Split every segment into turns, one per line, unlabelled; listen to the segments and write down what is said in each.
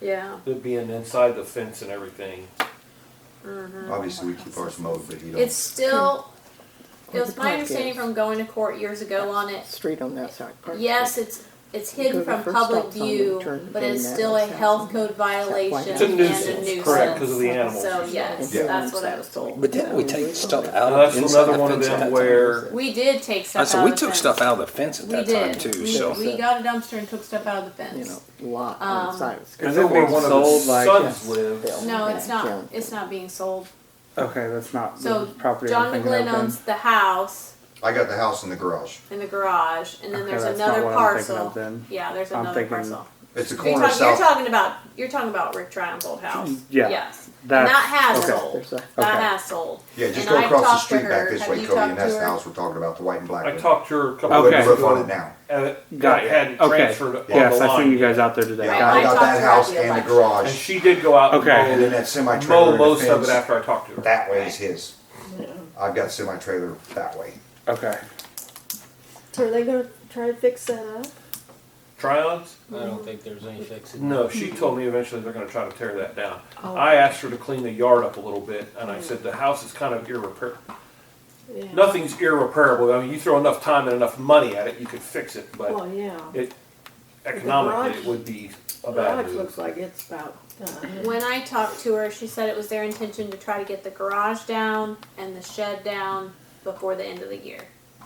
Yeah.
It being inside the fence and everything.
Obviously, we keep ours mowed, but he
It's
don't.
still, it
Where
was
the
my
park
understanding
is.
from going to court years ago on it,
Street on that side. Park
yes,
Street.
it's, it's
You
hidden
go
from
to first
public
stop sign, you
view,
turn
but it's
in
still a
that house
health
and-
code violation
It's
a
and a
nuisance,
nuisance.
correct, 'cause of the animals.
So, yes,
Yeah.
that's what I was told.
But didn't we take stuff out
Now,
of
that's
inside
another
the
one of
fence at that
them
time?
where
We did take
I
stuff
said
out
we
of the
took
fence.
stuff out of the fence at
We
that time
did.
too.
We-
So
We got a dumpster and took stuff out of the
You
fence.
know, lot on
Um,
the side of the street.
I
Is
know
it
where
being
one of the
sold like?
sons lives.
No, it's
Yeah.
not, it's not being sold.
Okay, that's not
So
the property
John
I'm thinking
McGlynn
of. then.
owns the house
I got the house in the garage.
and the garage, and then
Okay,
there's
that's not
another
what I'm thinking of
parcel.
then.
Yeah, there's
I'm
another
thinking-
parcel.
It's a
You're
corner
talking, you're
south.
talking about, you're talking about Rick Tryon's old house.
Yeah,
Yes. And
that's-
that has
okay.
sold.
There's a-
okay.
That has sold.
Yeah, just
And
go
I've
across the
talked to
street back
her.
this
Have
way,
you
Cody,
talked
and
to
that's the
her?
house we're talking about, the white and black.
I
one.
talked to her a couple
Put
Okay.
the
days
roof on it
ago.
now.
and it
Got it.
hadn't
Okay.
transferred on
Yes,
the
I seen you
line.
guys out there today.
Yeah,
I-
Got
I
it.
got
talked to
that
her
house
at the
and the
election.
And
garage,
she did go out
Okay.
and then
and
that semi
mow, mow
trailer.
most of it after I talked to her.
That way is his. I've got semi trailer that way.
Okay.
So are they gonna try to fix that up?
Try-ons?
I don't think there's any fixing. Oh.
No, she told me eventually they're gonna try to tear that down. I asked her to clean the yard up a little bit, and I said, the house is kind of irreparable.
Yeah.
Nothing's irreparable. I mean, you throw enough time and enough money at it, you could fix it, but
Well, yeah.
it, economically,
garage-
it would be a bad
Garage
move.
looks like it's about done.
When I talked to her, she said it was their intention to try to get the garage down and the shed down before the end of the year.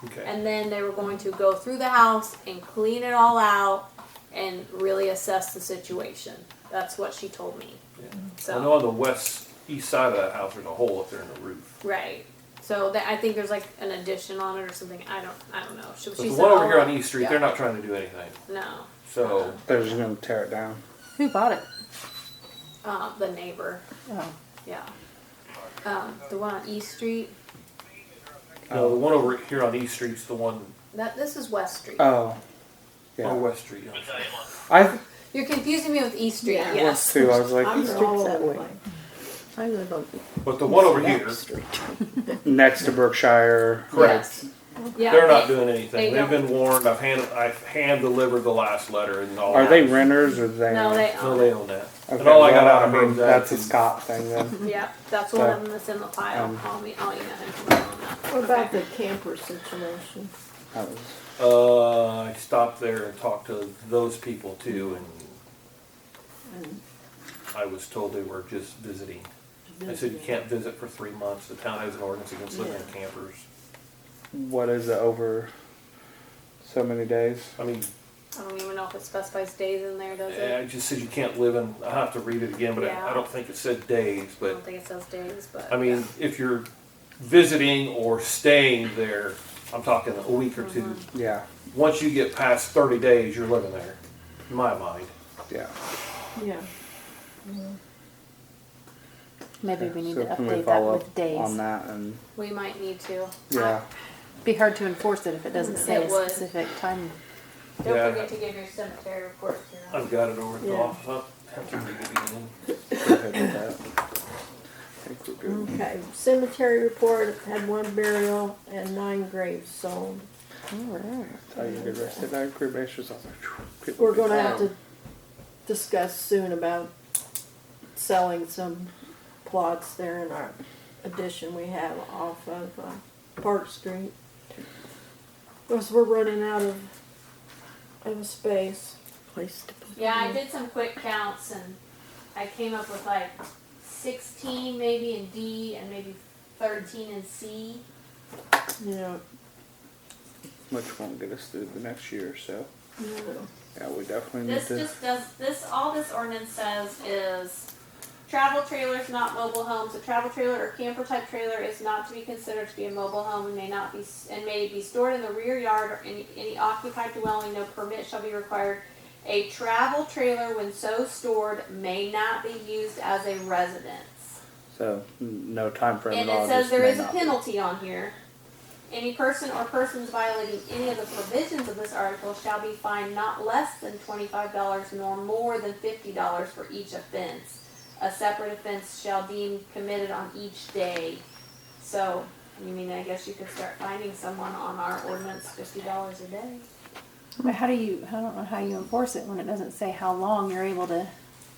Okay.
And then they were going to go through the house and clean it all out and really assess the situation. That's what she told me.
Yeah. I know
So,
on the west, east side of that house, there's a hole up there in the roof.
right. So that, I think there's like an addition on it or something. I don't, I don't know. She,
But
she
the
said
one over here
all-
on East Street,
yeah. Uh-huh.
they're not trying to do anything.
No,
So,
They're just gonna tear it down.
Who bought it?
uh, the neighbor.
Oh.
Yeah. Um, the one on East Street.
no, the one over here on East Street's the one,
That this is West Street.
Oh.
or
Yeah.
West Street. I'm sorry.
I th-
You're confusing me with East Street.
Yeah.
Yes.
too. I was
I'm
like
Street's
all
that
over the
way.
place.
I live on
But the one over
Back
here,
Street.
next to Berkshire.
Yes. Yeah.
They're not
they-
doing anything.
they
They've been
don't.
warned. I've hand I've hand delivered the last letter and all.
Are
that.
they renters or they?
No, they
No,
own.
they own that.
Okay,
and all I got
well,
out of her
mean,
was
that's a
that-
Scott thing then.
Yep, that's one of
So,
them that's in the pile.
um,
I'll, me, I'll email him tomorrow on that.
What about
Okay.
the camper situation?
That was-
Uh, I stopped there and talked to those people too, and I was told they were just visiting. I said you can't visit for three months. The town has an ordinance against living in
Yeah.
campers.
what is it over? So many days.
I mean,
I don't even know if it specifies days in there, does
eh,
it?
I just said you can't live in. I have to read it again, but I- I,
Yeah.
don't think it said days.
I
But
don't think it says days, but.
I mean, if you're visiting or staying there, I'm talking a week or 2
Yeah.
once you get past 30 days, you're living there, in my mind.
Yeah.
Yeah.
Maybe we need to
can we
update that
follow
with
up on
days.
that and
We might need to.
yeah.
Be hard to enforce it if it doesn't say
Mm, It
a
would.
specific time.
I- Don't
Yeah.
forget to give your cemetery report to your
I've got it over at the
Yeah.
office. I have to read it again.
go ahead with that. I think we're good.
Okay, cemetery report had one burial and nine graves sold.
That's how you get rested. I agree, bashes. I was like, phew, people
We're
be-
gonna have to discuss soon about selling some plots there in our addition we have off of uh, Park Street. Because we're running out of, of space.
Place to put.
Yeah, I
Mm-hmm.
did some quick counts and I came up with like sixteen maybe in D and maybe thirteen in C.
You know,
Which won't get us through the next year, so
you know,
yeah, we definitely need
This
to.
just does, this, all this ordinance says is travel trailers, not mobile homes. A travel trailer or camper type trailer is not to be considered to be a mobile home and may not be, and may be stored in the rear yard or any, any occupied dwelling. No permit shall be required. A travel trailer, when so stored, may not be used as a residence.
So n- no time frame
And
at all.
it says
just
there
may
is a
not be.
penalty on here. Any person or persons violating any of the provisions of this article shall be fined not less than twenty-five dollars nor more than fifty dollars for each offense. A separate offense shall be committed on each day. So, you mean, I guess you could start finding someone on our ordinance fifty dollars a day?
But how do you, I don't know how you enforce it when it doesn't say how long you're able to